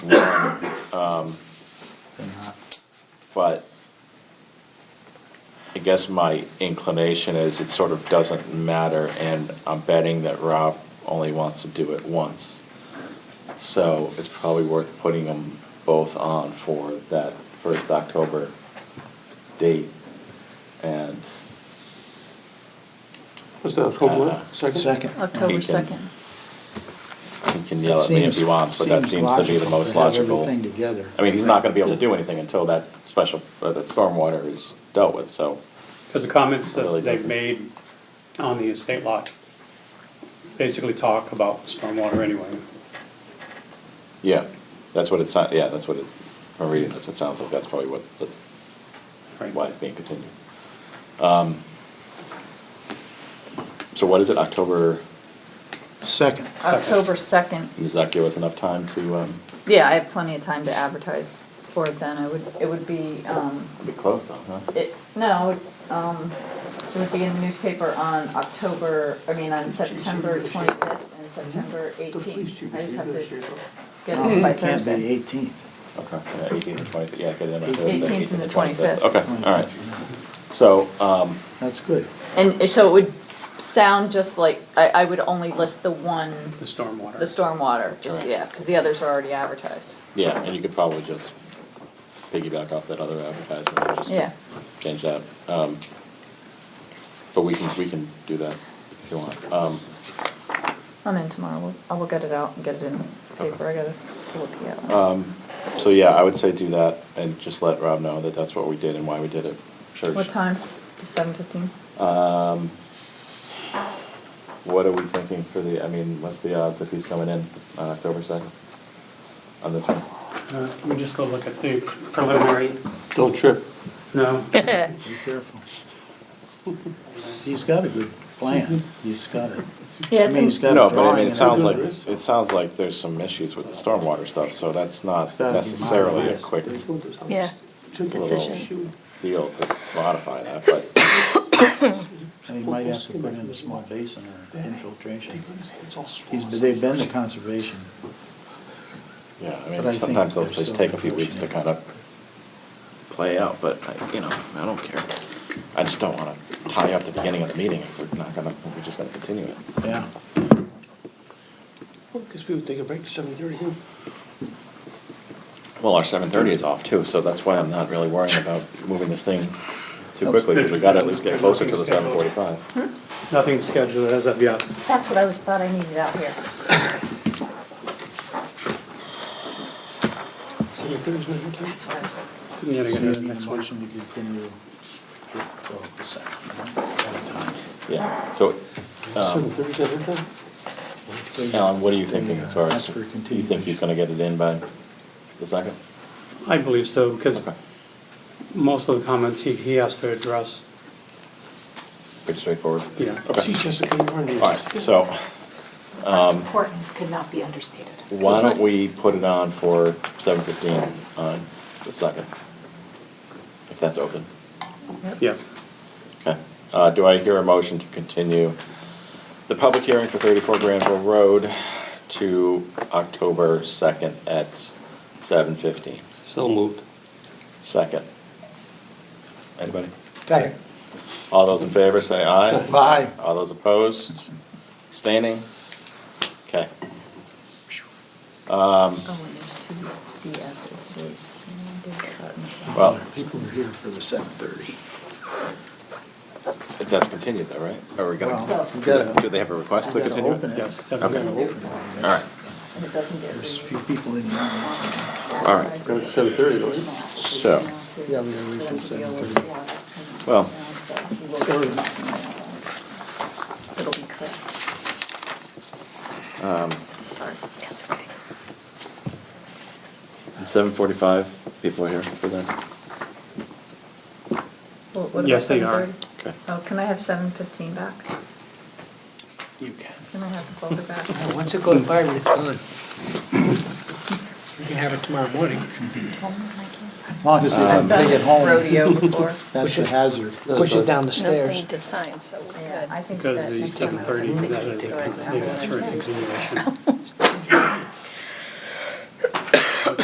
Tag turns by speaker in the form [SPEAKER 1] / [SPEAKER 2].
[SPEAKER 1] Um, but I guess my inclination is it sort of doesn't matter, and I'm betting that Rob only wants to do it once. So it's probably worth putting them both on for that first October date. And
[SPEAKER 2] Was that October
[SPEAKER 1] Uh,
[SPEAKER 2] what? second?
[SPEAKER 3] Second.
[SPEAKER 1] He
[SPEAKER 4] October
[SPEAKER 1] can-
[SPEAKER 4] 2nd.
[SPEAKER 1] he can yell at me if he wants, but that seems to be the most logical.
[SPEAKER 3] Everything together.
[SPEAKER 1] I mean, he's not gonna be able to do anything until that special, uh, the stormwater is dealt with, so.
[SPEAKER 5] Because the comments
[SPEAKER 1] Really
[SPEAKER 5] that they've
[SPEAKER 1] doesn't.
[SPEAKER 5] made on the estate lot basically talk about stormwater anyway.
[SPEAKER 1] Yeah, that's what it's, yeah, that's what it, I'm reading this, it sounds like that's probably what, the-
[SPEAKER 5] Right.
[SPEAKER 1] why it's being continued. Um, So what is it, October,
[SPEAKER 3] Second.
[SPEAKER 4] October 2nd.
[SPEAKER 1] does that give us enough time to, um,
[SPEAKER 4] Yeah, I have plenty of time to advertise for it then. It would, it would be, um,
[SPEAKER 1] it'll be close though, huh?
[SPEAKER 4] it, no, um, it would be in the newspaper on October, I mean, on September 25th and September 18th. I just have to get
[SPEAKER 3] No,
[SPEAKER 4] it Mm, by
[SPEAKER 3] It Mm-hmm. can't be
[SPEAKER 4] Thursday.
[SPEAKER 3] eighteenth.
[SPEAKER 1] Okay, yeah, eighteen to twenty, yeah, get it in on
[SPEAKER 3] 18th
[SPEAKER 1] Thursday,
[SPEAKER 3] and the
[SPEAKER 1] 18th and the twenty-fifth,
[SPEAKER 4] 25th.
[SPEAKER 1] okay, all right. So, um,
[SPEAKER 3] That's good.
[SPEAKER 4] And so it would sound just like, I, I would only list the one,
[SPEAKER 5] The stormwater.
[SPEAKER 4] the stormwater, just,
[SPEAKER 1] Correct.
[SPEAKER 4] yeah, because the others are already advertised.
[SPEAKER 1] yeah, and you could probably just piggyback off that other advertisement, and just
[SPEAKER 4] Yeah.
[SPEAKER 1] change that. Um, But we can, we can do that if you want. Um,
[SPEAKER 4] I'm in tomorrow. We'll- I will get it out and get it in the paper. I gotta look at it.
[SPEAKER 1] So yeah, I would say do that and just let Rob know that that's what we did and why we did it. Church.
[SPEAKER 4] What time? Seven fifteen?
[SPEAKER 1] What are we thinking for the, I mean, what's the odds that he's coming in on October second? On this one?
[SPEAKER 5] Uh, Let me just go look at the preliminary,
[SPEAKER 2] Don't trip.
[SPEAKER 5] no,
[SPEAKER 3] Be careful. He's got a good plan. He's got it.
[SPEAKER 4] Yeah,
[SPEAKER 3] I mean, he's
[SPEAKER 4] it's in,
[SPEAKER 3] got
[SPEAKER 1] No,
[SPEAKER 3] a
[SPEAKER 1] but I
[SPEAKER 3] drawing
[SPEAKER 1] mean,
[SPEAKER 3] and
[SPEAKER 1] it sounds like,
[SPEAKER 3] everything.
[SPEAKER 1] it sounds like there's some issues with the stormwater stuff, so that's not
[SPEAKER 3] gotta be
[SPEAKER 1] necessarily a
[SPEAKER 3] modified.
[SPEAKER 1] quick
[SPEAKER 4] yeah,
[SPEAKER 1] little deal to modify that, but
[SPEAKER 3] And he might have to put in a small basin or infiltration. He's, they've been to conservation.
[SPEAKER 1] yeah, I
[SPEAKER 3] But I
[SPEAKER 1] mean,
[SPEAKER 3] think
[SPEAKER 1] sometimes those things
[SPEAKER 3] there's still
[SPEAKER 1] take a few weeks to
[SPEAKER 3] unfortunate.
[SPEAKER 1] kind of play out, but I, you know, I don't care. I just don't wanna tie up the beginning of the meeting if we're not gonna, if we're just gonna continue it.
[SPEAKER 3] Yeah.
[SPEAKER 2] Because we would take a break to seven thirty, yeah.
[SPEAKER 1] Well, our seven thirty is off too, so that's why I'm not really worrying about moving this thing too quickly, because we gotta at least get closer to the seven forty-five.
[SPEAKER 5] nothing scheduled as of yet.
[SPEAKER 4] that's what I was, thought I needed out here.
[SPEAKER 2] Seven thirty's not your time.
[SPEAKER 4] That's what I was,
[SPEAKER 5] Couldn't get
[SPEAKER 3] So
[SPEAKER 5] it
[SPEAKER 3] you
[SPEAKER 5] in the
[SPEAKER 3] need
[SPEAKER 5] next
[SPEAKER 3] a
[SPEAKER 5] one.
[SPEAKER 3] motion to continue with, uh, the second one at a time.
[SPEAKER 1] Yeah, so,
[SPEAKER 2] Seven
[SPEAKER 1] um,
[SPEAKER 2] thirty's not your time?
[SPEAKER 1] Alan, what are you thinking as far
[SPEAKER 3] Ask
[SPEAKER 1] as,
[SPEAKER 3] for
[SPEAKER 1] you
[SPEAKER 3] continuation.
[SPEAKER 1] think he's gonna get it in by the second?
[SPEAKER 5] I believe so, because
[SPEAKER 1] Okay,
[SPEAKER 5] most of the comments he, he has to address,
[SPEAKER 1] pretty straightforward.
[SPEAKER 5] yeah.
[SPEAKER 2] See Jessica, you are near.
[SPEAKER 1] Alright, so,
[SPEAKER 6] importance could not be understated.
[SPEAKER 1] why don't we put it on for seven fifteen on the second? If that's open.
[SPEAKER 5] Yes.
[SPEAKER 1] Okay, uh, do I hear a motion to continue the public hearing for thirty-four Granville Road to October second at seven fifteen?
[SPEAKER 2] So moved.
[SPEAKER 1] Second. Anybody?
[SPEAKER 3] Second.
[SPEAKER 1] All those in favor say aye.
[SPEAKER 3] Bye.
[SPEAKER 1] All those opposed? Abstaining? Okay.
[SPEAKER 4] oh, we need two BS's dates.
[SPEAKER 1] Well-
[SPEAKER 3] People are here for the seven thirty.
[SPEAKER 1] That's continued though, right? Are we gonna,
[SPEAKER 3] Well, we gotta-
[SPEAKER 1] do they have a request to
[SPEAKER 3] We gotta
[SPEAKER 1] continue?
[SPEAKER 3] open it.
[SPEAKER 5] Yes,
[SPEAKER 3] We
[SPEAKER 5] okay.
[SPEAKER 3] gotta open it. I guess.
[SPEAKER 1] All right,
[SPEAKER 4] And it doesn't get
[SPEAKER 3] There's a
[SPEAKER 4] reviewed.
[SPEAKER 3] few people in the audience.
[SPEAKER 1] all right,
[SPEAKER 2] Go to seven thirty, don't we?
[SPEAKER 1] so,
[SPEAKER 3] Yeah, we gotta wait till seven thirty.
[SPEAKER 1] well,
[SPEAKER 4] It'll be cut. Sorry.
[SPEAKER 1] seven forty-five, people are here for that.
[SPEAKER 4] Well, what about
[SPEAKER 5] Yes, they are.
[SPEAKER 4] 7:30?
[SPEAKER 1] Okay.
[SPEAKER 4] Oh, can I have seven fifteen back?
[SPEAKER 1] You can.
[SPEAKER 4] Can I have the folder back?
[SPEAKER 7] Once it goes by, it's gone. We can have it tomorrow morning.
[SPEAKER 3] As long as Uh, they
[SPEAKER 4] I've
[SPEAKER 3] don't
[SPEAKER 4] done
[SPEAKER 3] take it
[SPEAKER 4] this
[SPEAKER 3] home,
[SPEAKER 4] rodeo before.
[SPEAKER 3] that's the hazard.
[SPEAKER 7] Push it down the stairs.
[SPEAKER 6] Nothing to sign, so we're
[SPEAKER 4] Yeah,
[SPEAKER 6] good.
[SPEAKER 4] I think that.
[SPEAKER 5] Because the seven thirty, that is, yeah, that's for a continuation.